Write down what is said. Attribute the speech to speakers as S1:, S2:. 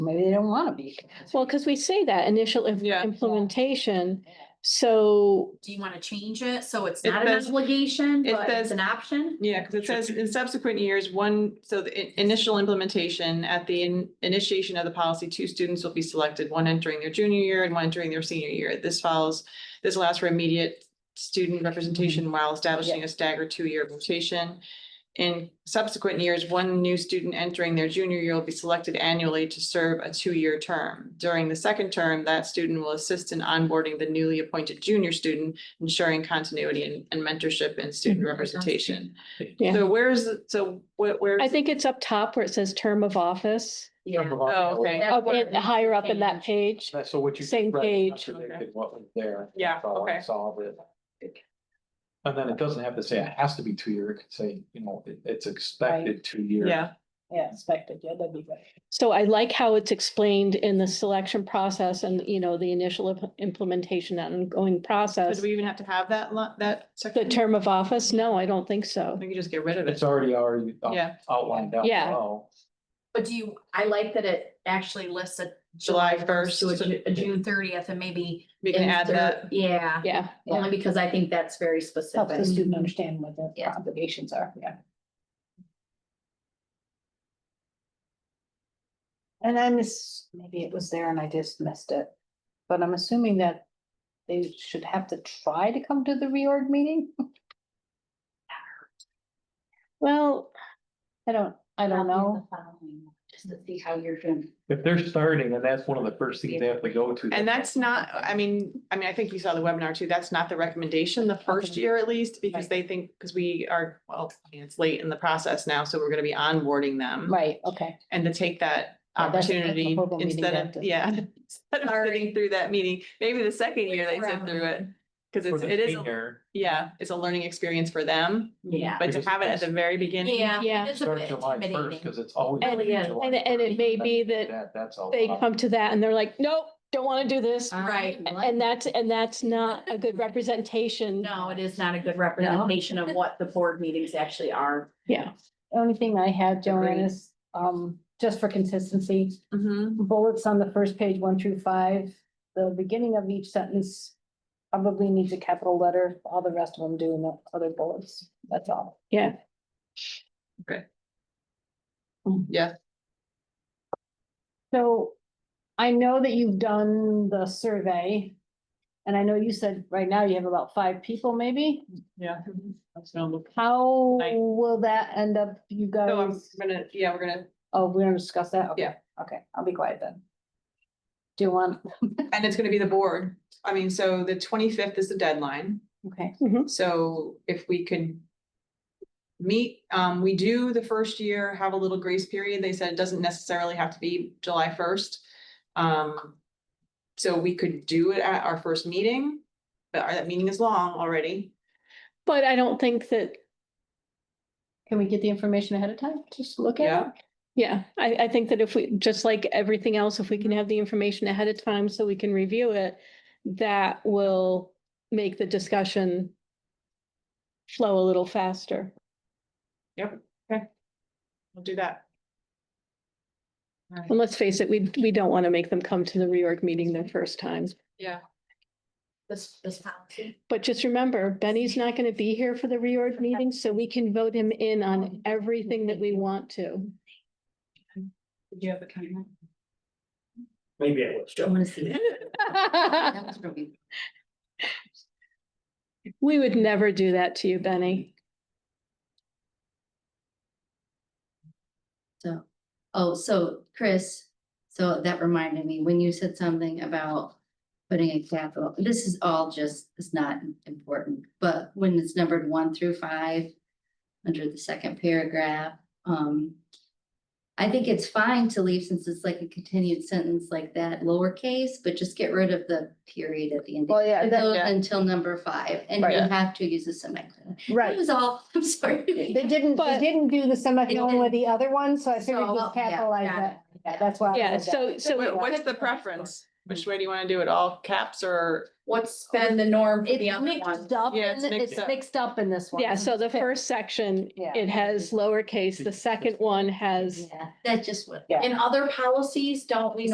S1: Maybe they don't want to be.
S2: Well, because we say that initial im-
S3: Yeah.
S2: implementation, so,
S4: Do you wanna change it? So it's
S3: It
S4: not an
S3: says-
S4: obligation,
S3: it
S4: but it's
S3: says-
S4: an option?
S3: Yeah, because it says in subsequent years, one, so the in- initial implementation at the in- initiation of the policy, two students will be selected, one entering their junior year and one entering their senior year. This follows, this allows for immediate student representation while establishing a staggered two-year rotation. In subsequent years, one new student entering their junior year will be selected annually to serve a two-year term. During the second term, that student will assist in onboarding the newly appointed junior student, ensuring continuity and- and mentorship and student representation.
S2: Yeah.
S3: So where's, the- so where, where?
S2: I think it's up top where it says term of office.
S4: Yeah.
S3: Oh, okay.
S4: That's
S2: Up
S4: where
S2: in-
S4: it
S2: higher up in that
S4: changed.
S2: page,
S5: That's so what you.
S2: Same
S5: right,
S2: page.
S5: contradicted What was there.
S3: Yeah,
S5: That's how I
S3: okay.
S5: Solved it. And then it doesn't have to say it has to be two year, it could say, you know, it- it's expected two year.
S3: Yeah,
S1: Yeah, expected, yeah, that'd be good.
S2: so I like how it's explained in the selection process and, you know, the initial imp- implementation and ongoing
S3: So
S2: process.
S3: do we even have to have that, lo- that
S2: The
S3: section?
S2: term of office, no, I don't think so.
S3: We can just get rid of it.
S5: It's already already out-
S3: Yeah.
S5: outlined out
S2: Yeah.
S5: below.
S4: But do you, I like that it actually lists a.
S3: July
S4: To a
S3: 1st,
S4: Ju- a June thirtieth and maybe.
S3: We can add
S4: insert-
S3: that.
S4: Yeah,
S2: Yeah,
S4: only because I think that's very
S1: Helps the
S4: specific.
S1: student understand what their
S4: Mhm. Yeah.
S1: obligations are, yeah. And I miss, maybe it was there and I just missed it, but I'm assuming that they should have to try to come to the reorg meeting?
S2: well,
S1: I don't, I don't know.
S4: Just to see how you're doing.
S5: If they're starting and that's one of the first things they have to go to.
S3: And that's not, I mean, I mean, I think you saw the webinar too. That's not the recommendation the first
S1: Okay.
S3: year at least, because they think, because we are, well, I mean, it's late in the process now, so we're going to be onboarding them.
S1: Right, okay.
S3: And to take that
S1: Yeah, that's- that's the
S3: opportunity
S1: program meeting
S3: instead of,
S1: that-
S3: yeah, instead of sitting through that meeting, maybe the second year they sit
S4: Around.
S3: through it. Because
S5: For
S3: it's,
S5: the
S3: it is, a-
S5: senior,
S3: yeah, it's a learning experience for them,
S4: Yeah.
S3: but to
S5: Because
S3: have it at
S5: it's-
S3: the very beginning.
S4: Yeah.
S2: Yeah.
S4: It's a
S5: Start
S4: bit
S5: July first,
S4: intimidating.
S5: because it's always.
S2: and,
S4: yeah,
S5: July
S2: and, and it may be that
S5: That, that's all.
S2: they come to that and they're like, nope, don't want to do this.
S4: Right.
S2: And that's, and that's not a good representation.
S4: No, it is not a good representation of what the board meetings actually are.
S2: Yeah,
S1: Only thing I had, Joanne,
S3: Agreed.
S1: is, um, just for consistency, Mm-hmm.
S3: Mhm.
S1: bullets on the first page, one through five, the beginning of each sentence probably needs a capital letter, all the rest of them do in the other bullets, that's all.
S2: yeah.
S3: Yeah,
S1: Hmm. So I know that you've done the survey. And I know you said right now you have about five people maybe.
S3: yeah. That's normal.
S1: How
S3: Right.
S1: will that end up, you
S3: So I'm
S1: guys?
S3: gonna, yeah, we're gonna,
S1: Oh, we're gonna discuss that? Okay,
S3: Yeah.
S1: Okay, I'll be quiet then. Do you want,
S3: and it's gonna be the board. I mean, so the twenty-fifth is the deadline,
S1: okay,
S3: so if we could. Meet, um, we do the first year have a little grace period. They said it doesn't necessarily have to be July first. Um, so we could do it at our first meeting, but our, that meeting is long already.
S2: But I don't think that,
S1: can we get the information ahead of time? Just look at
S3: Yeah,
S1: it?
S2: yeah, I, I think that if we, just like everything else, if we can have the information ahead of time so we can review it, that will make the discussion flow a little faster.
S3: we'll do that.
S2: And let's face it, we, we don't want to make them come to the reorg meeting their first time.
S3: Yeah.
S4: This, this policy.
S2: But just remember, Benny's not going to be here for the reorg meeting, so we can vote him in on everything that we want to.
S4: Did you have a comment?
S6: Maybe I was.
S4: I wanna see. That was really-
S2: We would never do that to you, Benny.
S7: So, oh, so Chris, so that reminded me, when you said something about putting a capital, this is all just, it's not important, but when it's numbered one through five, under the second paragraph, um, I think it's fine to leave since it's like a continued sentence like that lowercase, but just get rid of the period at the end.
S1: Well, yeah,
S7: Until,
S3: yeah.
S7: until number five, and
S1: Right.
S7: you have to use a semicolon. That was all, I'm sorry.
S1: They didn't, they
S2: But-
S1: didn't do the semicolon with
S7: didn't-
S1: the other one, so I figured
S7: So,
S1: just
S7: yeah,
S1: capitalize
S7: got
S1: that. Yeah, that's why. I
S2: Yeah,
S1: did that.
S2: so, so
S3: Wha- What's the preference? Which way do you want to do it? All caps or?
S4: What's been the norm for the
S1: It's
S4: other one?
S1: mixed up,
S3: Yeah, it's
S1: in-
S3: mixed
S1: it's
S3: up.
S1: mixed up in this one.
S2: Yeah, so the first section,
S1: Yeah.
S2: it has lowercase, the second one has
S1: Yeah.
S7: That's just what
S4: In other policies, don't we